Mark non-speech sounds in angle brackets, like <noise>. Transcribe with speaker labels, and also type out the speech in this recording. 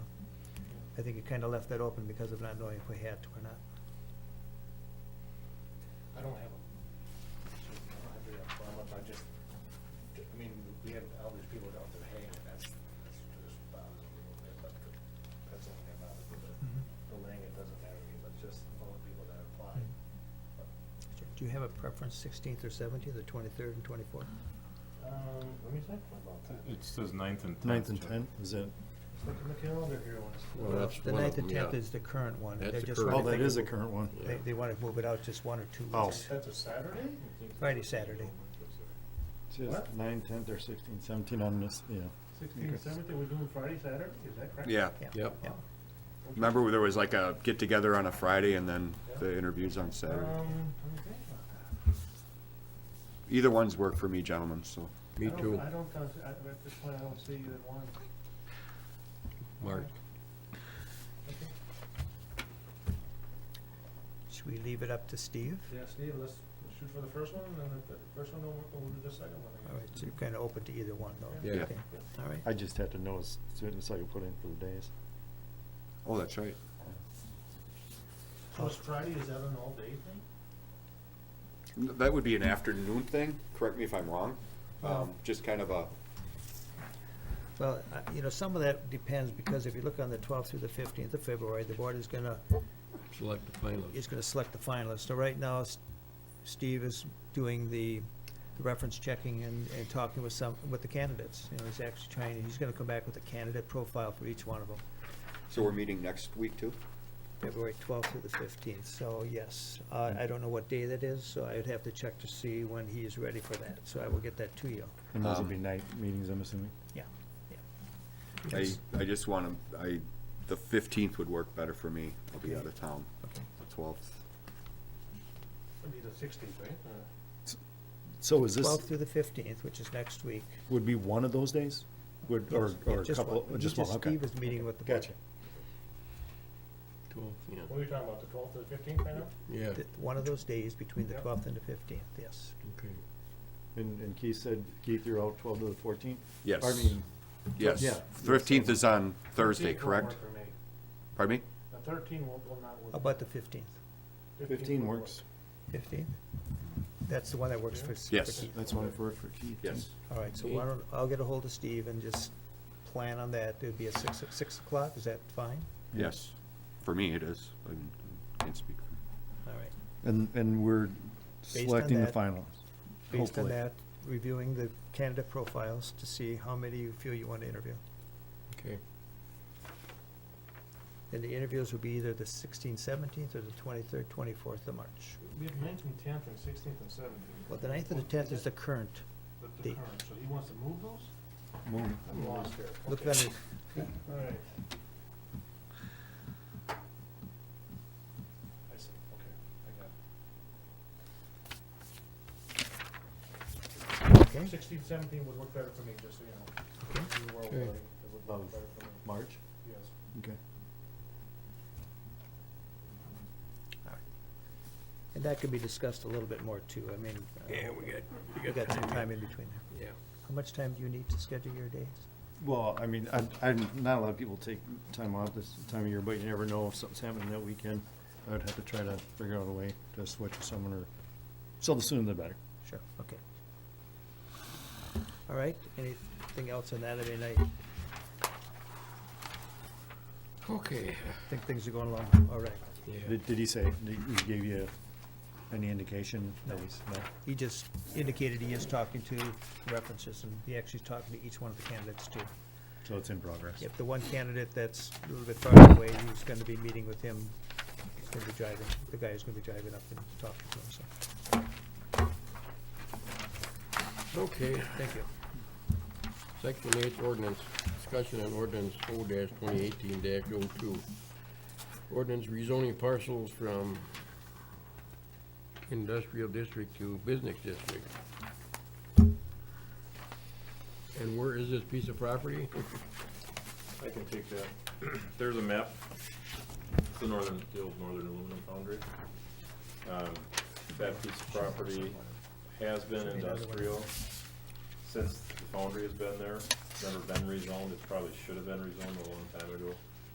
Speaker 1: I think you kind of left that open because of not knowing if we had to or not.
Speaker 2: I don't have, a- I don't have it up front, but I just, I mean, we have all these people down there hanging, that's, that's just bothers me a little bit, but the- that's only that bothers me, but
Speaker 1: Mhm.
Speaker 2: the laying, it doesn't matter to me, but just all the people that applied. But,
Speaker 1: Do you have a preference, sixteenth or seventeenth, or twenty-third and twenty-fourth?
Speaker 2: Um, let me think about that.
Speaker 3: It says ninth and tenth.
Speaker 4: Ninth and tenth, is it?
Speaker 2: Look at the calendar here once.
Speaker 5: Well, that's
Speaker 1: The
Speaker 5: one of
Speaker 1: ninth and
Speaker 5: them, yeah.
Speaker 1: tenth is the current one.
Speaker 5: That's
Speaker 1: They
Speaker 5: the
Speaker 1: just
Speaker 5: current
Speaker 1: wanna
Speaker 4: Oh,
Speaker 5: Right,
Speaker 1: think
Speaker 4: that is a
Speaker 1: of-
Speaker 4: current one.
Speaker 5: Yeah.
Speaker 1: They, they want to move it out just one or two
Speaker 4: Oh.
Speaker 1: weeks.
Speaker 2: That's a Saturday?
Speaker 1: Friday, Saturday.
Speaker 2: What?
Speaker 4: Just nine, tenth, or sixteen, seventeen on this, yeah.
Speaker 2: Sixteen, seventeen, we're doing Friday, Saturday, is that correct?
Speaker 6: Yeah.
Speaker 5: Yep.
Speaker 1: Yeah.
Speaker 6: Remember, there was like a get-together on a Friday and then the interviews on
Speaker 2: Um,
Speaker 6: Saturday.
Speaker 2: let me think about that.
Speaker 6: Either one's work for me, gentlemen, so.
Speaker 5: Me
Speaker 2: I don't-
Speaker 5: too,
Speaker 2: I don't, cons- I- at this point, I don't see either one.
Speaker 5: Mark.
Speaker 1: Should we leave it up to Steve?
Speaker 2: Yeah, Steve, let's shoot for the first one, and then if the first one don't work, we'll do the second one
Speaker 1: All
Speaker 2: again.
Speaker 1: right, so you're kind of open to either one, though?
Speaker 5: Yeah.
Speaker 1: Okay. All right.
Speaker 4: I just have to know as soon as I can put in for the days.
Speaker 6: Oh, that's right.
Speaker 2: So it's Friday, is that an all-day thing?
Speaker 6: That would be an afternoon thing, correct me if I'm wrong. Um, just kind of a,
Speaker 1: Well, uh, you know, some of that depends, because if you look on the twelfth through the fifteenth of February, the board is going to,
Speaker 5: select the finalists.
Speaker 1: is going to select the finalists. So right now, S- Steve is doing the the reference checking and, and talking with some, with the candidates. You know, he's actually trying, he's going to come back with a candidate profile for each one of them,
Speaker 6: so we're meeting next week too?
Speaker 1: February twelfth through the fifteenth. So yes, Uh, I don't know what day that is, so I would have to check to see when he is ready for that. So I will get that to you.
Speaker 4: And those will
Speaker 6: Um,
Speaker 4: be night meetings, I'm assuming.
Speaker 1: Yeah, yeah.
Speaker 6: I,
Speaker 1: Yes.
Speaker 6: I just want to, I, the fifteenth would work better for me. I'll be out of town.
Speaker 1: Okay.
Speaker 6: The twelfth.
Speaker 2: It'd be the sixteenth, right? Uh,
Speaker 4: So is this,
Speaker 1: Twelfth through the fifteenth, which is next week.
Speaker 4: would be one of those days? Would, or,
Speaker 1: Yes, yeah,
Speaker 4: or a
Speaker 1: just
Speaker 4: couple,
Speaker 1: one.
Speaker 4: just one,
Speaker 1: Just
Speaker 4: okay.
Speaker 1: Steve is meeting with the board.
Speaker 4: Gotcha.
Speaker 5: Twelve,
Speaker 2: What are you talking about, the twelfth to the fifteenth right now?
Speaker 5: yeah, yeah,
Speaker 1: Th- One of those days between the
Speaker 2: Yep.
Speaker 1: twelfth and the fifteenth, yes.
Speaker 5: okay.
Speaker 4: And, and Keith said, Keith, you're out twelve to the fourteenth?
Speaker 6: Yes.
Speaker 4: I mean, Yeah.
Speaker 6: Yes. Fifteenth is on Thursday,
Speaker 2: 13th won't
Speaker 6: correct?
Speaker 2: work for me.
Speaker 6: Pardon me?
Speaker 2: The thirteen will, will not work.
Speaker 1: How about the fifteenth?
Speaker 2: 15th
Speaker 4: fifteen
Speaker 2: will work.
Speaker 4: works.
Speaker 1: Fifteenth? That's the one that works for. for
Speaker 6: Yes.
Speaker 1: Keith.
Speaker 4: That's one for, for Keith.
Speaker 6: Yes.
Speaker 1: All right, so why don't, I'll get a hold of Steve and just plan on that. It'd be at six, six o'clock, is that fine?
Speaker 6: Yes. For me, it is. I mean, I can't speak for.
Speaker 1: All right.
Speaker 4: And, and we're
Speaker 1: on
Speaker 4: selecting the
Speaker 1: that-
Speaker 4: finalists.
Speaker 1: Based on
Speaker 4: Hopefully.
Speaker 1: that, reviewing the candidate profiles to see how many you feel you want to interview.
Speaker 5: Okay.
Speaker 1: And the interviews will be either the sixteenth, seventeenth, or the twenty-third, twenty-fourth of March.
Speaker 2: We have ninth and tenth and sixteenth and seventeenth.
Speaker 1: Well, the ninth and the tenth is the current.
Speaker 2: The,
Speaker 1: the-
Speaker 2: the current, so he wants to move those?
Speaker 4: Move.
Speaker 2: I'm lost here.
Speaker 1: Look
Speaker 2: Okay.
Speaker 1: on the
Speaker 2: All right. I see, okay, I got it.
Speaker 1: okay?
Speaker 2: Sixteen, seventeen would work better for me, just so you know. In the world,
Speaker 5: Okay.
Speaker 2: like, it would work
Speaker 4: Of
Speaker 2: better for me.
Speaker 4: March,
Speaker 2: Yes.
Speaker 4: okay.
Speaker 1: And that could be discussed a little bit more too, I mean. uh,
Speaker 5: Yeah, we got,
Speaker 1: we got some time in between there.
Speaker 5: yeah.
Speaker 1: How much time do you need to schedule your days?
Speaker 4: Well, I mean, I, I, not a lot of people take time off this time of year, but you never know if something's happening that weekend. I would have to try to figure out a way to switch with someone or, so the sooner the better.
Speaker 1: Sure, okay. All right, anything else on that? I mean, I
Speaker 5: Okay,
Speaker 1: think things are going along all right.
Speaker 5: yeah,
Speaker 4: Did, did he say, did he give you any indication? No. No?
Speaker 1: He just indicated he is talking to references and he actually is talking to each one of the candidates too.
Speaker 4: So it's in progress.
Speaker 1: If the one candidate that's a little bit farther away, he's gonna be meeting with him, he's gonna be driving, the guy is gonna be driving up and talking to him, so,
Speaker 5: okay.
Speaker 1: thank you.
Speaker 5: Section eight ordinance, discussion on ordinance 0 twenty eighteen 2 Ordinance rezoning parcels from industrial district to business district. And where is this piece of property?
Speaker 3: I can take that. <clears throat> There's a map. It's the northern, the old northern aluminum foundry. Um, That piece of property has been industrial since the foundry has been there. It's Never been rezoned. It probably should have been rezoned a long time ago.